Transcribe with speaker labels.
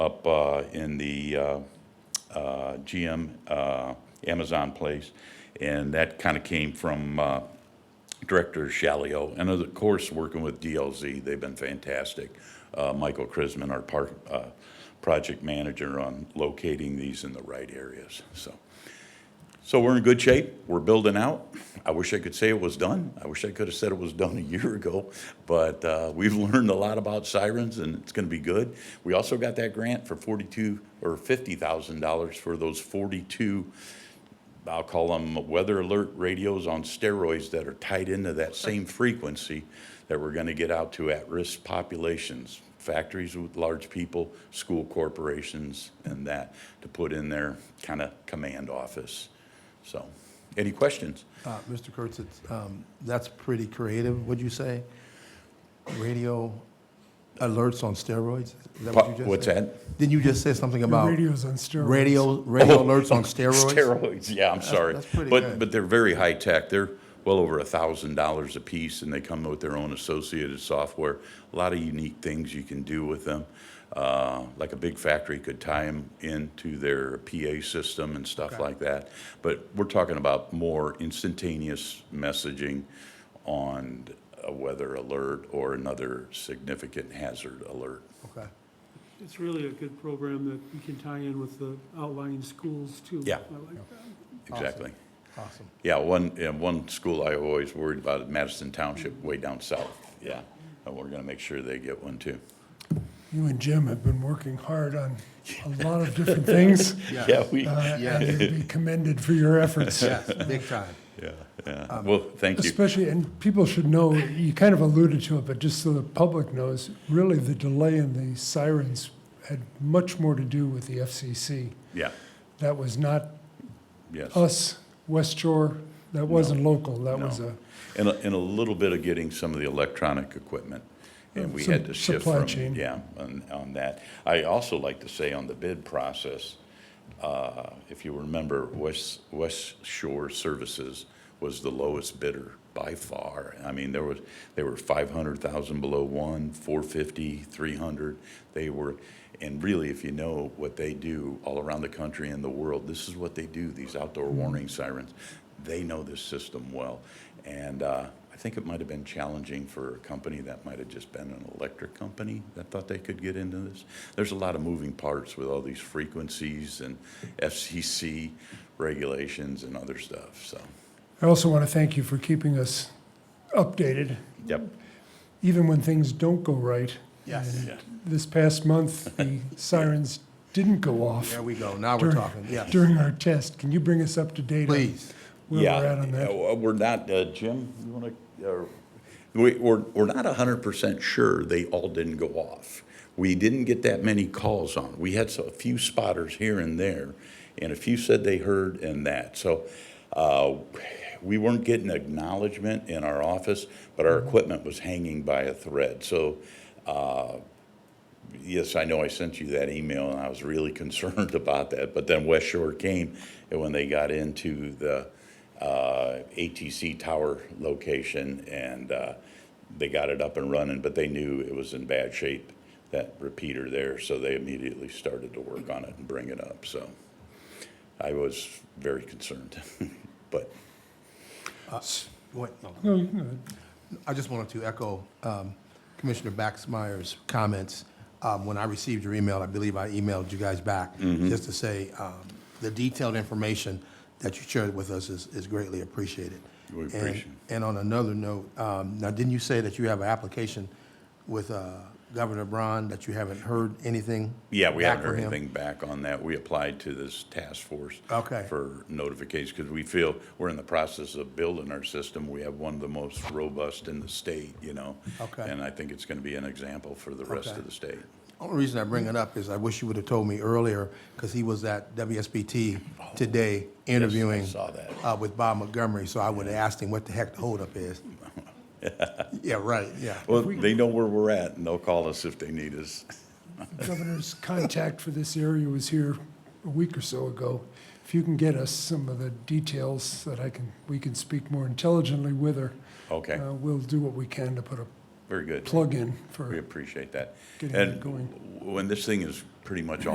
Speaker 1: up uh, in the uh, uh, GM uh, Amazon place. And that kind of came from uh, Director Shalio, and of course, working with DLZ, they've been fantastic. Uh, Michael Krisman, our park, uh, project manager on locating these in the right areas, so. So we're in good shape, we're building out. I wish I could say it was done, I wish I could have said it was done a year ago, but uh, we've learned a lot about sirens and it's gonna be good. We also got that grant for forty-two, or fifty thousand dollars for those forty-two I'll call them weather alert radios on steroids that are tied into that same frequency that we're going to get out to at-risk populations, factories with large people, school corporations, and that, to put in their kind of command office. So, any questions?
Speaker 2: Uh, Mr. Kurtz, it's, um, that's pretty creative, would you say? Radio alerts on steroids? Is that what you just
Speaker 1: What's
Speaker 2: said?
Speaker 1: that?
Speaker 2: Didn't you just say something
Speaker 3: Your
Speaker 2: about
Speaker 3: Radio's on steroids.
Speaker 2: radio, radio
Speaker 1: Oh,
Speaker 2: alerts on
Speaker 1: oh,
Speaker 2: steroids?
Speaker 1: Steroids, yeah, I'm sorry.
Speaker 2: that's pretty
Speaker 1: But,
Speaker 2: good.
Speaker 1: but they're very high-tech. They're well over a thousand dollars apiece, and they come with their own associated software. A lot of unique things you can do with them. Uh, Like a big factory could tie them into their PA system and stuff like that. But we're talking about more instantaneous messaging on a weather alert or another significant hazard alert.
Speaker 2: Okay.
Speaker 4: It's really a good program that we can tie in with the outlying schools too.
Speaker 1: Yeah.
Speaker 4: I like that.
Speaker 1: Exactly.
Speaker 2: Awesome.
Speaker 1: Yeah, one, yeah, one school I always worried about is Madison Township way down south, yeah. And we're gonna make sure they get one too.
Speaker 3: You and Jim have been working hard on a lot of different things.
Speaker 1: Yeah, we,
Speaker 3: uh, And
Speaker 2: Yes.
Speaker 3: you'd be commended for your efforts.
Speaker 2: Yes, big time.
Speaker 1: yeah, yeah. Well, thank you.
Speaker 3: Especially, and people should know, you kind of alluded to it, but just so the public knows, really the delay in the sirens had much more to do with the FCC.
Speaker 1: Yeah,
Speaker 3: That was not
Speaker 1: yes.
Speaker 3: us, West Shore, that wasn't local, that
Speaker 1: No.
Speaker 3: was uh, a.
Speaker 1: And, a- and a little bit of getting some of the electronic equipment. And we
Speaker 3: Some
Speaker 1: had to shift
Speaker 3: supply
Speaker 1: from,
Speaker 3: chain.
Speaker 1: yeah, on, on that. I also like to say on the bid process, uh, if you remember, West, West Shore Services was the lowest bidder by far. I mean, there was, they were five hundred thousand below one, four fifty, three hundred. They were, and really, if you know what they do all around the country and the world, this is what they do, these outdoor warning sirens. They know this system well. And, uh, I think it might have been challenging for a company that might have just been an electric company that thought they could get into this. There's a lot of moving parts with all these frequencies and FCC regulations and other stuff, so,
Speaker 3: I also want to thank you for keeping us updated,
Speaker 1: yep.
Speaker 3: even when things don't go right.
Speaker 2: Yes.
Speaker 1: Yeah.
Speaker 3: This past month, the sirens didn't go off
Speaker 2: There we go. Now we're
Speaker 3: During-
Speaker 2: talking. Yes,
Speaker 3: during our test. Can you bring us up to date? on
Speaker 2: please.
Speaker 3: Where
Speaker 1: yeah,
Speaker 3: we're at on that?
Speaker 1: uh, well, We're not, uh, Jim, you want to, uh, we, we're, we're not hundred percent sure they all didn't go off. We didn't get that many calls on. We had so- a few spotters here and there, and a few said they heard and that. So, uh, we weren't getting acknowledgement in our office, but
Speaker 3: Mm-hmm.
Speaker 1: our equipment was hanging by a thread. So, uh, yes, I know I sent you that email, and I was really concerned about that. But then West Shore came, and when they got into the uh, ATC tower location, and uh, they got it up and running, but they knew it was in bad shape, that repeater there, so they immediately started to work on it and bring it up. So I was very concerned, but Uh,
Speaker 2: What- no.
Speaker 3: No, you can
Speaker 2: I just wanted to echo um, Commissioner Baxmeyer's comments. Um, When I received your email, I believe I emailed you guys back,
Speaker 1: Mm-hmm.
Speaker 2: just to say um, the detailed information that you shared with us is is greatly appreciated.
Speaker 1: We
Speaker 2: And-
Speaker 1: appreciate it.
Speaker 2: And on another note, um, now, didn't you say that you have an application with uh, Governor Braun, that you haven't heard anything?
Speaker 1: Yeah, we
Speaker 2: back
Speaker 1: haven't
Speaker 2: from
Speaker 1: heard
Speaker 2: him?
Speaker 1: anything back on that. We applied to this task force.
Speaker 2: Okay.
Speaker 1: For notification, because we feel we're in the process of building our system. We have one of the most robust in the state, you know?
Speaker 2: Okay.
Speaker 1: And I think it's going to be an example for the rest
Speaker 2: Okay.
Speaker 1: of the state.
Speaker 2: Only reason I bring it up is I wish you would have told me earlier, because he was at WSBT today interviewing.
Speaker 1: saw that.
Speaker 2: uh, with Bob Montgomery, so I would have asked him what the heck the holdup is. Yeah, right, yeah.
Speaker 1: Well, they know where we're at, and they'll call us if they need us.
Speaker 3: The governor's contact for this area was here a week or so ago. If you can get us some of the details that I can, we can speak more intelligently with her.
Speaker 1: Okay.
Speaker 3: uh, We'll do what we can to put a
Speaker 1: very good.
Speaker 3: plug-in
Speaker 1: We
Speaker 3: for
Speaker 1: appreciate that.
Speaker 3: getting
Speaker 1: And
Speaker 3: it going.
Speaker 1: when this thing is pretty much